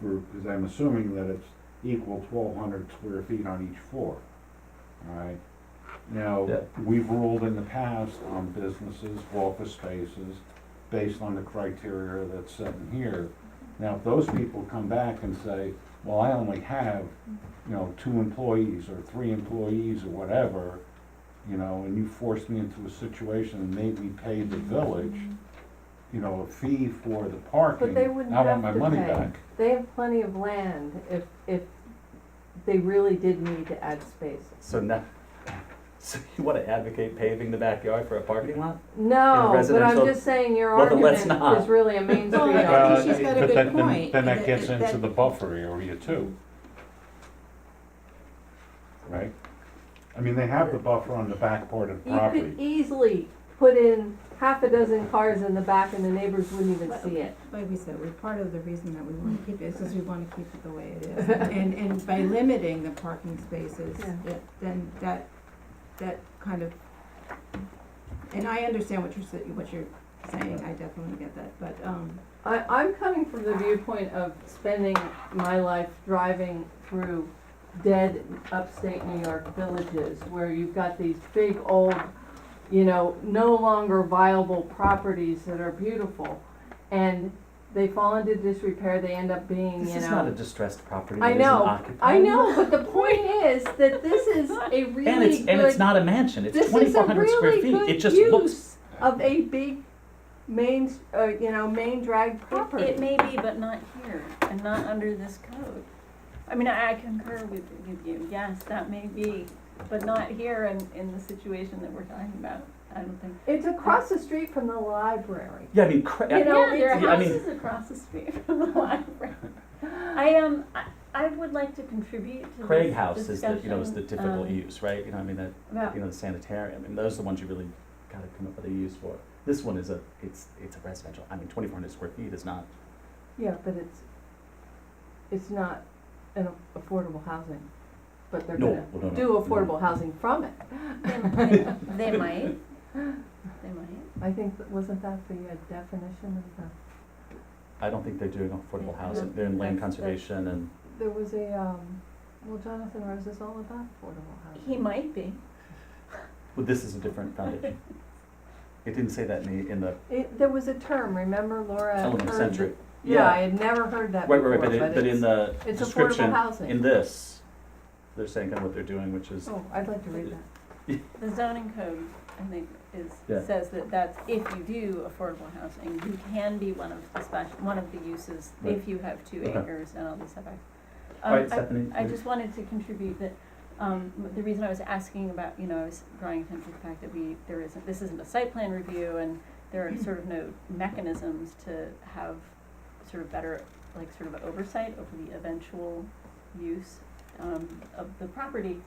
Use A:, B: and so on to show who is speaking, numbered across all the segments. A: for, because I'm assuming that it's equal twelve hundred square feet on each floor. Alright, now,
B: Yeah.
A: we've ruled in the past on businesses, office spaces, based on the criteria that's set in here. Now, if those people come back and say, well, I only have, you know, two employees or three employees or whatever, you know, and you forced me into a situation and made me pay the village, you know, a fee for the parking.
C: they wouldn't
A: I want
C: have
A: my
C: to
A: money
C: pay.
A: back.
C: They have plenty of land if, if they really did need to add spaces.
B: So now, so you wanna advocate paving the backyard for a parking lot? In a
C: No, but I'm
B: residential-
C: just saying your
B: Well, then
C: argument
B: let's not.
C: is really a Main Street
D: Well, I
C: argument.
D: think
A: Uh,
D: she's got a
A: but
D: good
A: that- then-
D: point.
A: Then that
D: That-
A: gets into
D: that-
A: the buffer area too. Right? I mean, they have the buffer on the back part of the
C: You could
A: property.
C: easily put in half a dozen cars in the back and the neighbors wouldn't even see it.
D: Like we said, we, part of the reason that we wanna keep it is because we wanna keep it the way it is. And, and by limiting the parking spaces,
C: Yeah.
D: it, then that, that kind of, and I understand what you're, sa- what you're saying, I definitely get that, but, um,
C: I, I'm coming from the viewpoint of spending my life driving through dead upstate New York villages where you've got these big old, you know, no longer viable properties that are beautiful. And they fall into disrepair, they end up being, you know.
B: This is not a distressed property
C: I
B: that isn't
C: know,
B: occupied.
C: I know, but the point is that this is a really
B: And it's,
C: good.
B: and it's not a mansion, it's
C: this is a
B: twenty-four hundred square
C: really
B: feet,
C: good
B: it just
C: use
B: looks,
C: of a big main, s- uh, you know, main drag
E: It-
C: property.
E: It may be, but not here, and not under this code. I mean, I I concur with, with you, yes, that may be, but not here in, in the situation that we're talking about, I don't think.
C: It's across the street from the library.
B: yeah, I mean, cra-
C: You know,
E: Yeah, there
B: it's- yeah, I
E: are
B: mean-
E: houses across the street from the library. I, um, I, I would like to contribute to this
B: Craig House is the, you know, is the
E: discussion,
B: typical E
E: um,
B: use, right? You know, I mean, that,
E: About
B: you know, the sanitarium, and those are the ones you really gotta come up with a use for. This one is a, it's, it's a residential, I mean, twenty-four hundred square feet is not,
C: Yeah, but it's, it's not an affordable housing, but they're
B: No,
C: gonna
B: well, no, no,
C: do
B: no.
C: affordable housing from it.
E: They might, they might, they might.
C: I think, that- wasn't that the uh, definition of the,
B: I don't think they're doing affordable
E: Yeah,
B: housing,
E: no,
B: they're in land
E: that's- that's-
B: conservation and,
C: there was a, um, well, Jonathan Rose is all about affordable housing.
E: He might be.
B: well, this is a different foundation. It didn't say that in the, in the
C: It, there was a term, remember
E: Uh,
C: Laura? had
B: element
C: heard
B: century.
C: that- Yeah, I had never heard that
B: Right,
C: before,
B: right, right, but it, but in
C: it's,
B: the
C: it's affordable
B: description, in
C: housing.
B: this, they're saying kind of what they're doing, which is,
C: Oh, I'd like to read that.
E: The zoning code, I think, is,
B: Yeah.
E: says that that's, if you do affordable housing, you can be one of the special, one of the uses,
B: Right.
E: if you have two
B: Okay.
E: acres and all these setbacks.
B: all
E: Um,
B: right,
E: I-
B: Stephanie.
E: I
B: you-
E: just wanted to contribute that, um, the reason I was asking about, you know, I was drawing attention to the fact that we, there isn't, this isn't a site plan review and there are sort of no mechanisms to have sort of better, like, sort of oversight over the eventual use, um, of the property.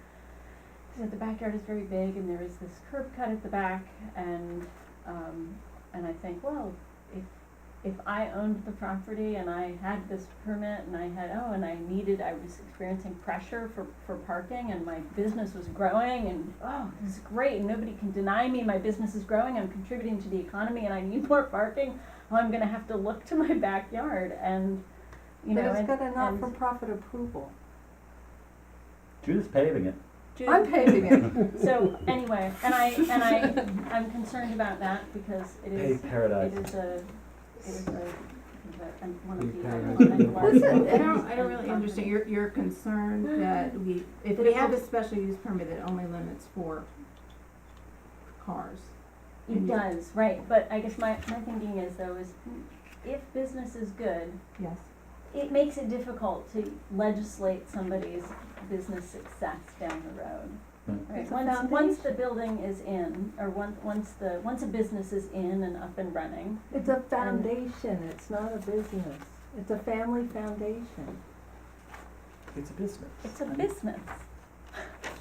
E: So the backyard is very big and there is this curb cut at the back and, um, and I think, well, if, if I owned the property and I had this permit and I had, oh, and I needed, I was experiencing pressure for, for parking and my business was growing and, oh, this is great, and nobody can deny me, my business is growing, I'm contributing to the economy and I need more parking, well, I'm gonna have to look to my backyard and, you know,
C: But it's
E: and,
C: got a
E: and
C: not-for-profit approval.
B: Judith's paving it.
E: do-
C: I'm paving it.
E: So, anyway, and I, and I, I'm concerned about that because it is,
B: Pave paradise.
E: It is a, it is a, and one
B: Big
E: of the.
B: paradigm.
C: Listen,
D: I don't, I don't really understand, you're, you're concerned that we, if we have a special use permit that only limits four cars.
E: It does, right, but I guess my, my thinking is though is if business is good,
D: Yes.
E: it makes it difficult to legislate somebody's business success down the road.
B: Mm.
E: Right,
C: It's a
E: once, once the building is in, or once, once the, once a business is in and up and running,
C: It's a foundation, it's not a business. It's a family foundation.
B: It's a business.
E: it's a
B: I mean,
E: business.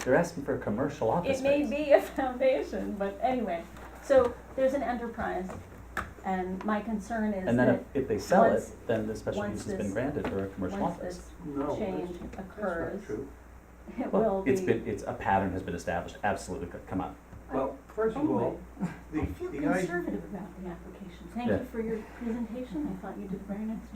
B: They're asking for a commercial office
E: It may
B: space.
E: be a foundation, but anyway, so there's an enterprise, and my concern is that.
B: And then if- if they sell it,
E: once-
B: then the special use
E: once
B: has been
E: this-
B: granted for a commercial
E: once
B: office.
E: this change occurs, it will
B: Well,
E: be.
B: it's been, it's, a pattern has been established, absolutely, c- come on.
F: Well, first of all, the,
E: I feel
F: the idea.
E: conservative about the application. Thank
B: Yeah.
E: you for your presentation. I thought you did a very nice job.